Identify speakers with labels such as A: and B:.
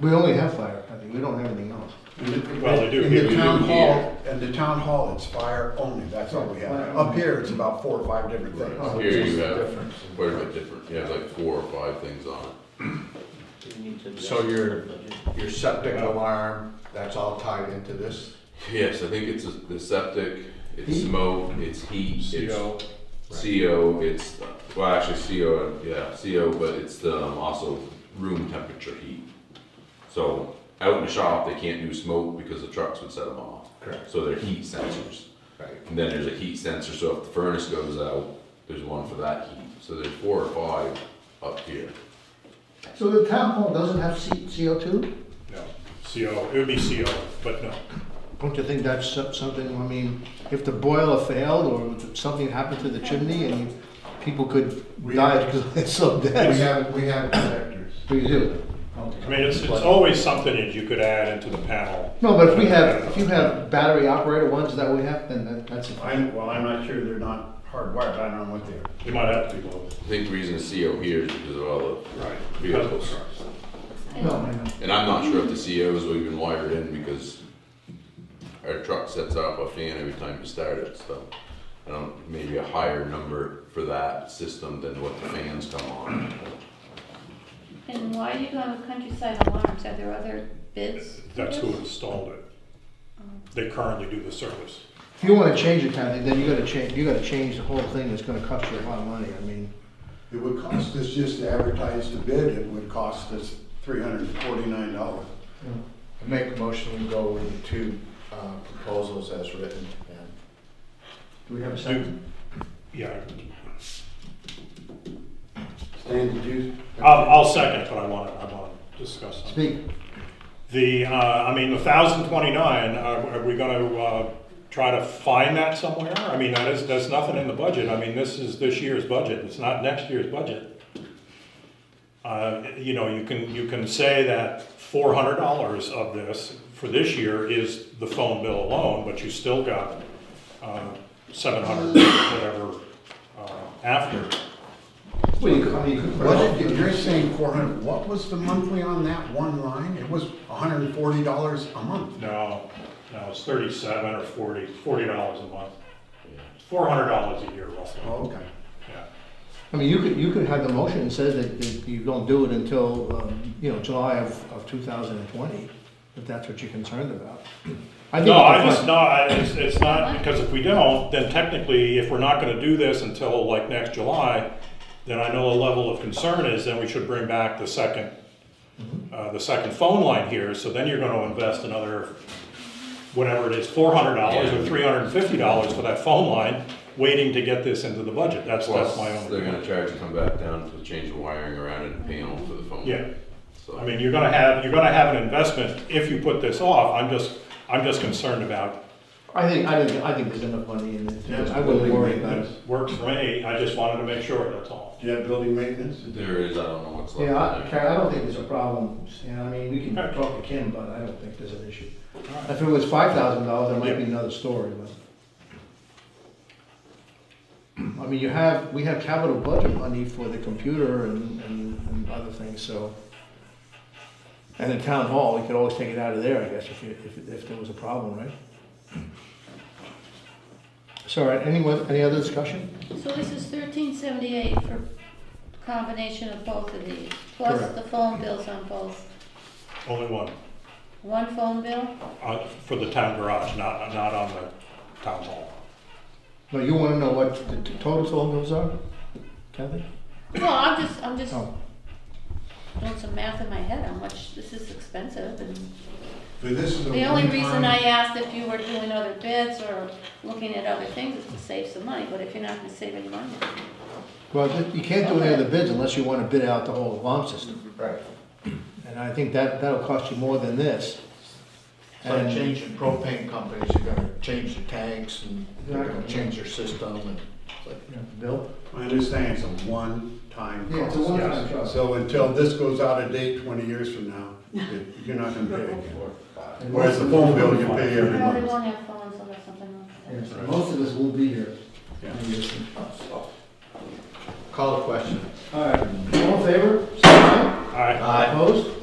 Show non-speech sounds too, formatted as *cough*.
A: We only have firefighting, we don't have anything else. Mm-hmm.
B: Well, they do
C: In
B: give
C: the
B: you a
C: town
B: year.
C: hall, in the town hall, it's fire only, that's all we have.
A: Fire
C: Up here, it's about four or five different
A: Right.
C: things.
B: Here
C: It's
B: you
C: just
B: have
C: different.
B: quite a bit different, you have like four or five things on it.
D: So your, your septic alarm, that's all tied into this?
B: Yes, I think it's the septic, it's
A: Heat.
B: smoke, it's heat, it's
D: CO.
B: CO, it's, uh, well, actually CO, uh, yeah, CO, but it's the, um, also room temperature heat. So out in the shop, they can't do smoke because the trucks would set them off.
D: Correct.
B: So they're heat sensors.
D: Right.
B: And then there's a heat sensor, so if the furnace goes out, there's one for that heat. So there's four or five up here.
A: So the town hall doesn't have C- CO2?
E: No, CO, it would be CO, but no.
A: Don't you think that's so- something, I mean, if the boiler failed or if something happened to the chimney and you- people could
C: We-
A: die *laughs* because it's so
C: We
A: dead?
C: have, we have connectors.
A: We do.
E: I mean, it's, it's always something that you could add into the panel.
A: No, but if we have, if you have battery operated ones that we have, then that- that's,
C: I, well, I'm not sure they're not hardwired, I don't know what they are.
E: It might have to be both.
B: I think the reason it's CO here is because of all
E: Right.
B: the vehicles.
A: no, I know.
B: And I'm not sure if the COs will even wired in because our truck sets off a fan every time you start it, so. I don't, maybe a higher number for that system than what the fans come on.
F: And why are you going with countryside alarms? Are there other bids? for
E: That's who
F: this?
E: installed it. They currently do the service.
A: If you wanna change it, Kathy, then you gotta change, you gotta change the whole thing, it's gonna cost you a lot of money, I mean.
C: It would cost us just to advertise the bid, it would cost us three hundred and forty-nine dollars.
D: I Make a motion, we go with the two uh, proposals as written. and-
A: Do we have a
E: Do- Yeah,
C: Stan, did you?
E: I'll, I'll second, but I want to, I want to discuss something.
A: Speak.
E: The, uh, I mean, the thousand twenty-nine, are, are we gonna, uh, try to find that somewhere? I mean, that is, that's nothing in the budget, I mean, this is this year's budget, it's not next year's budget. Uh, you know, you can, you can say that four hundred dollars of this for this year is the phone bill alone, but you still got, uh, seven hundred, whatever, uh, after.
A: Well, you could, I mean, you could put it
C: What
A: all-
C: did, you- you're saying four hundred, what was the monthly on that one line? It was hundred and forty dollars a month.
E: No, no, it's thirty-seven or forty, forty dollars a month. Four hundred dollars a year roughly,
C: Oh, okay.
E: yeah.
A: I mean, you could, you could have the motion that says that- that you don't do it until, um, you know, July of, of 2020, if that's what you're concerned about. *clears throat* I think
E: No, I
A: it's
E: just, no, I- it's, it's not, because if we don't, then technically, if we're not gonna do this until like next July, then I know the level of concern is then we should bring back the second,
B: Mm-hmm.
E: uh, the second phone line here, so then you're gonna invest another, whatever it is, four hundred dollars or
B: Yeah.
E: three hundred and fifty dollars for that phone line, waiting to get this into the budget, that's, that's my
B: Plus, they're
E: own.
B: gonna charge to come back down to change the wiring around in the panel for the phone.
E: Yeah.
B: So,
E: I mean, you're gonna have, you're gonna have an investment if you put this off, I'm just, I'm just concerned about
A: I think, I think, I think there's enough money in it. I wouldn't worry about it.
E: Works for me, I just wanted to make sure, that's all.
C: Do you have building maintenance?
B: there is, I don't know what's left.
A: Yeah, I,
B: in there.
A: Karen, I don't think there's a problem. Yeah, I mean, we can talk to Kim, but I don't think there's an issue. If it was $5,000, that might be another story, but. I mean, you have, we have capital budget money for the computer and, and and other things, so. And the town hall, we could always take it out of there, I guess, if, you- if, if there was a problem, right? So, all right, any, one- any other discussion?
F: So this is thirteen seventy-eight for combination of both of these, plus
A: Correct.
F: the phone bills on both.
E: Only one,
F: One phone bill?
E: uh, for the town garage, not, not on the town hall.
A: No, you wanna know what the t- total total bills are, Kathy?
F: Well, I'm just, I'm just
A: Oh.
F: doing some math in my head, how much, this is expensive, and
C: So this is a
F: the only reason
C: one-time-
F: I asked if you were doing other bids or looking at other things is to save some money, but if you're not gonna save any money.
A: Well, th- you can't do any of the bids unless you wanna bid out the whole alarm system.
D: Right.
A: And I think that, that'll cost you more than this.
D: So
A: And-
D: changing propane companies, you're gonna change the tanks and they're gonna
A: Exactly.
D: change their system and it's like,
A: Bill?
C: I understand it's a one-time cost.
A: Yeah, it's a one-time cost.
C: So until this goes out of date twenty years from
F: *laughs*
C: now, it- you're not gonna pay again. Whereas the phone bill you pay every
F: No, they
C: month.
F: won't have phones unless something like that.
A: Most of us will be here.
C: Yeah.
D: call the question.
A: All right, all in favor? Say aye.
E: All right,
D: Aye.
A: Opposed?